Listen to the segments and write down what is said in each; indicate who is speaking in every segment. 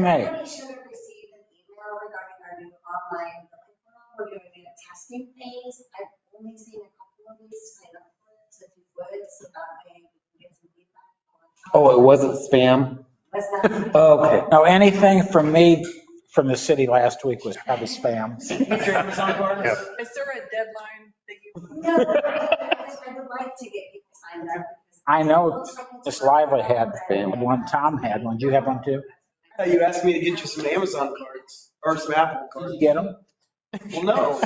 Speaker 1: Right.
Speaker 2: Everybody should have received an email regarding our new online learning portal. We're doing a testing phase. I've only seen a couple of these sign up for it, so if you would, so that way we can get some feedback.
Speaker 3: Oh, it wasn't spam?
Speaker 2: Was that?
Speaker 3: Okay.
Speaker 1: No, anything from me, from the city last week was probably spam.
Speaker 4: Put your Amazon card.
Speaker 5: Yeah.
Speaker 6: Is there a deadline that you?
Speaker 2: No, I
Speaker 4: Mm-hmm.
Speaker 2: would like to get people signed up. because
Speaker 1: I
Speaker 2: it
Speaker 1: know
Speaker 2: looks like it's-
Speaker 1: Miss Lively had one, Tom had one. Do you have one too?
Speaker 4: Yeah, Uh, You asked me to get you some Amazon cards or some Apple
Speaker 1: Did
Speaker 4: cards.
Speaker 1: you get them?
Speaker 4: Well, no.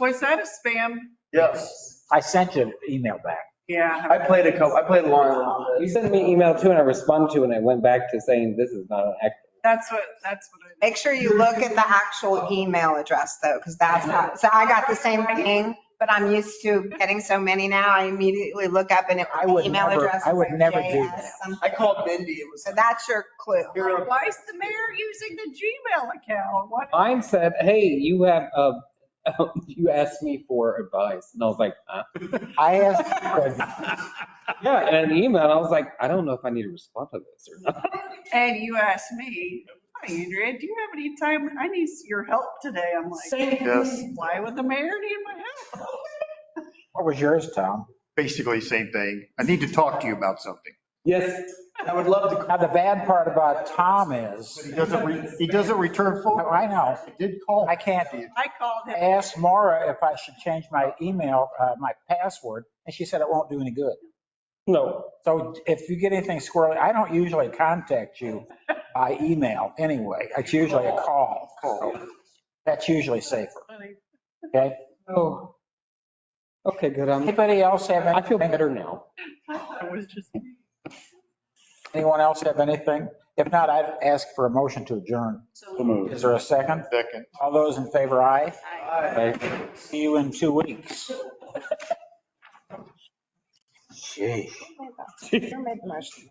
Speaker 6: Was that a spam?
Speaker 5: Yes.
Speaker 1: I sent you an email back.
Speaker 6: Yeah.
Speaker 4: I played a couple, I played along
Speaker 3: You
Speaker 4: with it.
Speaker 3: sent me an email too and I responded to it and I went back to saying this is not an act.
Speaker 6: That's what, that's what I.
Speaker 7: Make sure you look at the actual email address though, because that's how, so I got the same thing, but I'm used to getting so many now. I immediately look up and it,
Speaker 1: I
Speaker 7: the
Speaker 1: would
Speaker 7: email
Speaker 1: never-
Speaker 7: address.
Speaker 1: I
Speaker 7: is
Speaker 1: would
Speaker 7: like
Speaker 1: never do
Speaker 7: JS
Speaker 1: that.
Speaker 7: something.
Speaker 4: I called Mindy. It was.
Speaker 7: So that's your clue.
Speaker 4: You're a-
Speaker 6: Why is the mayor using the Gmail account? What?
Speaker 3: Mine said, hey, you have, uh, you asked me for advice. And I was like, huh?
Speaker 1: I asked, for-
Speaker 3: Yeah, and an email, and I was like, I don't know if I need to respond to this or not.
Speaker 6: And you asked me, hi Andrea, do you have any time? I need your help today. I'm like,
Speaker 5: Yes.
Speaker 6: why would the mayor need my help?
Speaker 1: what was yours, Tom?
Speaker 5: Basically, same thing. I need to talk to you about something.
Speaker 3: Yes,
Speaker 4: I would love to.
Speaker 1: Now, the bad part about Tom
Speaker 5: But
Speaker 1: is,
Speaker 5: he doesn't, re- he doesn't return
Speaker 1: Oh,
Speaker 5: phone.
Speaker 1: I know,
Speaker 5: I did call.
Speaker 1: I can't
Speaker 6: I called
Speaker 1: I
Speaker 6: him.
Speaker 1: asked Mara if I should change my email, uh, my password, and she said it won't do any good.
Speaker 3: no.
Speaker 1: So if you get anything squirrely, I don't usually contact you by email anyway. It's usually a call. That's usually safer, okay?
Speaker 3: Oh. Okay, good. Um,
Speaker 1: Anybody else have
Speaker 3: I feel
Speaker 1: anything?
Speaker 3: better now.
Speaker 6: It was just me.
Speaker 1: Anyone else have anything? If not, I'd ask for a motion to adjourn. Is there a second?
Speaker 5: Second.
Speaker 1: All those in favor, aye.
Speaker 4: Hi.
Speaker 3: Bye.
Speaker 1: See you in two weeks.
Speaker 7: You're making motion.